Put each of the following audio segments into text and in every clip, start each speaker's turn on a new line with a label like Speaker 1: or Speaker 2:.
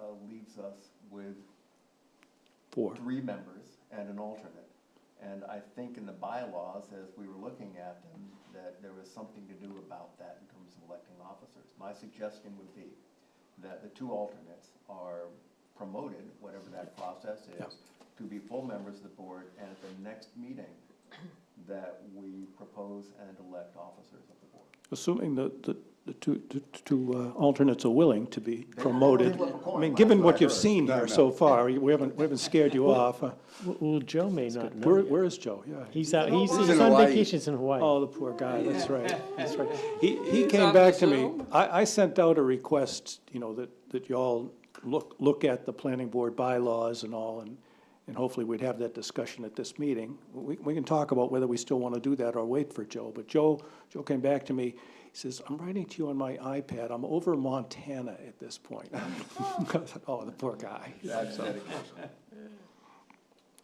Speaker 1: uh, leaves us with
Speaker 2: Four.
Speaker 1: three members and an alternate. And I think in the bylaws, as we were looking at them, that there was something to do about that in terms of electing officers. My suggestion would be that the two alternates are promoted, whatever that process
Speaker 2: Yeah.
Speaker 1: is, to be full members of the board, and at the next meeting, that we propose and elect officers of the board.
Speaker 2: Assuming that the, the two, the two uh, alternates are willing to be
Speaker 1: They-
Speaker 2: promoted.
Speaker 1: they flip a coin,
Speaker 2: I mean,
Speaker 1: last
Speaker 2: given
Speaker 1: I
Speaker 2: what you've
Speaker 1: heard.
Speaker 2: seen here so far, you- we haven't, we haven't scared you off. uh,
Speaker 3: Well- Well, Joe may not know.
Speaker 2: Where,
Speaker 3: yet.
Speaker 2: where is Joe? Yeah.
Speaker 3: He's out, he's,
Speaker 4: He's
Speaker 3: he's
Speaker 4: in
Speaker 3: on
Speaker 4: Hawaii.
Speaker 3: vacations in Hawaii.
Speaker 2: Oh, the poor guy, that's right, that's right. He, he
Speaker 5: He's
Speaker 2: came
Speaker 5: on
Speaker 2: back
Speaker 5: the
Speaker 2: to me,
Speaker 5: Zoom.
Speaker 2: I, I sent out a request, you know, that, that y'all look, look at the planning board bylaws and all, and, and hopefully we'd have that discussion at this meeting. We, we can talk about whether we still want to do that or wait for Joe, but Joe, Joe came back to me, he says, I'm writing to you on my iPad, I'm over Montana at this point. I said, Oh, the poor guy,
Speaker 1: That's dedication.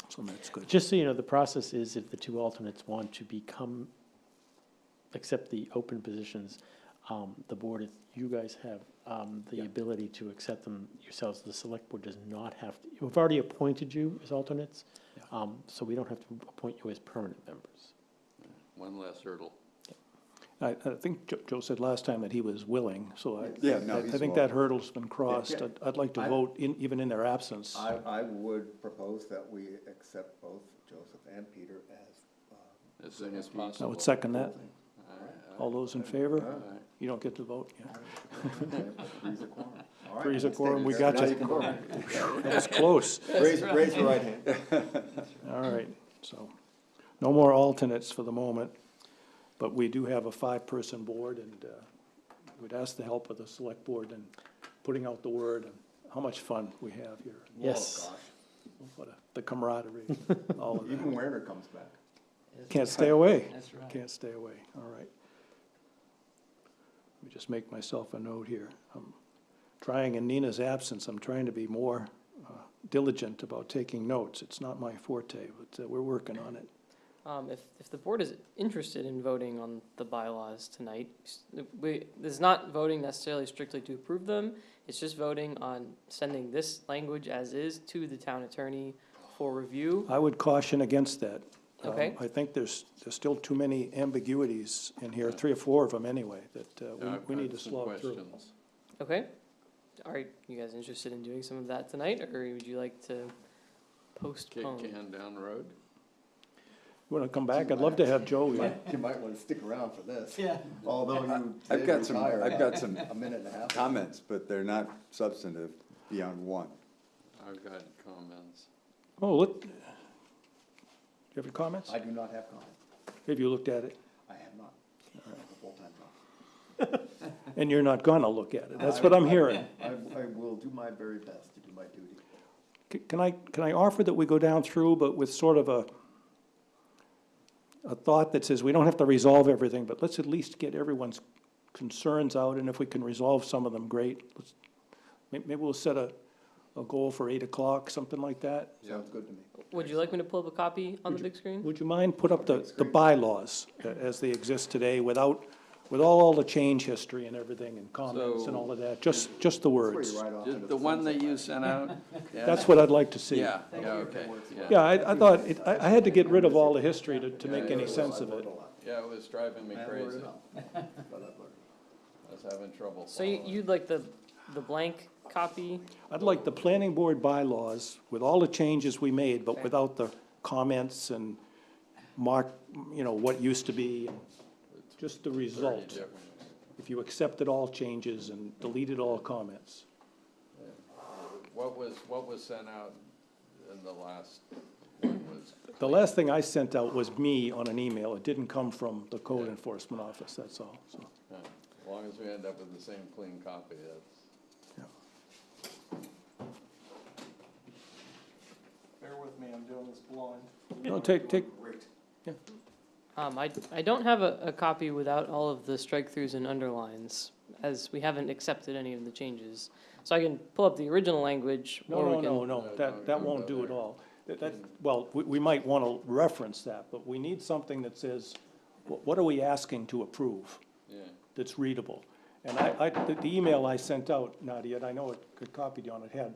Speaker 2: so that's good.
Speaker 3: Just so you know, the process is if the two alternates want to become, accept the open positions, um, the board, is- you guys have, um, the ability to accept them yourselves. The select board does not have to, we've already appointed you as alternates,
Speaker 2: Yeah.
Speaker 3: um, so we don't have to appoint you as permanent members.
Speaker 5: One less hurdle.
Speaker 2: I, I think Jo- Joe said last time that he was willing, so I,
Speaker 4: Yeah, no,
Speaker 2: I- I
Speaker 4: he's
Speaker 2: think
Speaker 4: willing.
Speaker 2: that hurdle's been crossed.
Speaker 1: Yeah.
Speaker 2: I'd, I'd like to
Speaker 1: I-
Speaker 2: vote in, even in their absence.
Speaker 1: I, I would propose that we accept both Joseph and Peter as, um,
Speaker 5: As soon as
Speaker 2: I
Speaker 5: possible.
Speaker 2: would second that.
Speaker 5: All right, all
Speaker 2: All those in favor?
Speaker 5: right, all right.
Speaker 2: You don't get to vote, yeah.
Speaker 1: three's a quorum. All right,
Speaker 2: Three's a
Speaker 1: let's take
Speaker 2: quorum,
Speaker 1: it.
Speaker 2: we got
Speaker 1: Now
Speaker 2: you.
Speaker 1: can vote.
Speaker 2: That was close.
Speaker 1: Raise, raise your right hand.
Speaker 2: All right, so, no more alternates for the moment, but we do have a five-person board, and, uh, we'd ask the help of the select board in putting out the word, and how much fun we have here.
Speaker 3: Yes.
Speaker 2: What a, the camaraderie, all of that.
Speaker 1: Even Werner comes back.
Speaker 2: Can't stay away.
Speaker 5: That's right.
Speaker 2: Can't stay away, all right. Let me just make myself a note here. I'm trying, in Nina's absence, I'm trying to be more uh, diligent about taking notes. It's not my forte, but uh, we're working on it.
Speaker 6: Um, if, if the board is interested in voting on the bylaws tonight, s- we, this is not voting necessarily strictly to approve them. It's just voting on sending this language as is to the town attorney for review.
Speaker 2: I would caution against that. Um,
Speaker 6: Okay.
Speaker 2: I think there's, there's still too many ambiguities in here, three or four of them anyway, that uh,
Speaker 5: I've
Speaker 2: we, we
Speaker 5: got
Speaker 2: need to
Speaker 5: some
Speaker 2: slow through.
Speaker 5: questions.
Speaker 6: Okay? Are you guys interested in doing some of that tonight, or would you like to
Speaker 5: Kick
Speaker 6: postpone?
Speaker 5: can down the road.
Speaker 2: Want to come back? I'd love to have Joe here.
Speaker 1: You might wanna stick around for this. Yeah. Although you
Speaker 4: I've
Speaker 1: did
Speaker 4: got some,
Speaker 1: retire
Speaker 4: I've got some
Speaker 1: a minute and a half.
Speaker 4: comments, but they're not substantive beyond one.
Speaker 5: I've got comments.
Speaker 2: Oh, look, do you have any comments?
Speaker 1: I do not have comments.
Speaker 2: Have you looked at it?
Speaker 1: I have not. I have a full-time job.
Speaker 2: And you're not gonna look at it. That's what I'm hearing.
Speaker 1: I, I will do my very best to do my duty.
Speaker 2: C- Can I, can I offer that we go down through, but with sort of a, a thought that says, we don't have to resolve everything, but let's at least get everyone's concerns out, and if we can resolve some of them, great. Let's- may- Maybe we'll set a, a goal for eight o'clock, something like that.
Speaker 5: Yeah.
Speaker 1: Sounds good to me.
Speaker 6: Would you like me to pull up a copy on the big screen?
Speaker 2: Would you mind put up the, the bylaws a- as they exist today without, with all the change history and everything and comments and all of that? Just, just the
Speaker 1: That's where
Speaker 2: words.
Speaker 1: you ride off
Speaker 5: Just
Speaker 1: into
Speaker 5: The one
Speaker 1: sunset.
Speaker 5: that you sent out? yeah,
Speaker 2: That's what I'd like to see.
Speaker 5: Yeah, yeah, okay, yeah.
Speaker 2: Yeah, I, I thought, it- I, I had to get rid of all the history to, to make any sense of it.
Speaker 5: Yeah, it was driving me
Speaker 1: I wrote
Speaker 5: crazy.
Speaker 1: it up. But I wrote it
Speaker 5: I was having trouble
Speaker 6: So you,
Speaker 5: following.
Speaker 6: you'd like the, the blank copy?
Speaker 2: I'd like the planning board bylaws with all the changes we made, but
Speaker 6: Okay.
Speaker 2: without the comments and mark, you know, what used to be, just the
Speaker 5: Thirty
Speaker 2: result.
Speaker 5: different-
Speaker 2: If you accepted all changes and deleted all comments.
Speaker 5: What was, what was sent out in the last one was,
Speaker 2: The last thing I sent out was me on an email. It didn't come from the code enforcement office, that's all, so.
Speaker 5: yeah, as long as we end up with the same clean copy, that's.
Speaker 7: Bear with me, I'm doing this blind.
Speaker 2: No, take, take,
Speaker 6: Um, I, I don't have a, a copy without all of the strike-throughs and underlines, as we haven't accepted any of the changes. So I can pull up the original language,
Speaker 2: No,
Speaker 6: or we
Speaker 2: no,
Speaker 6: can.
Speaker 2: no, no,
Speaker 5: No,
Speaker 2: that,
Speaker 5: don't
Speaker 2: that
Speaker 5: go
Speaker 2: won't
Speaker 5: down
Speaker 2: do it
Speaker 5: there.
Speaker 2: all. That, that, well, we, we might wanna reference that, but we need something that says, wh- what are we asking to approve
Speaker 5: Yeah,
Speaker 2: that's readable? And I, I, the- the email I sent out, Nadia, and I know it, it copied you on it, had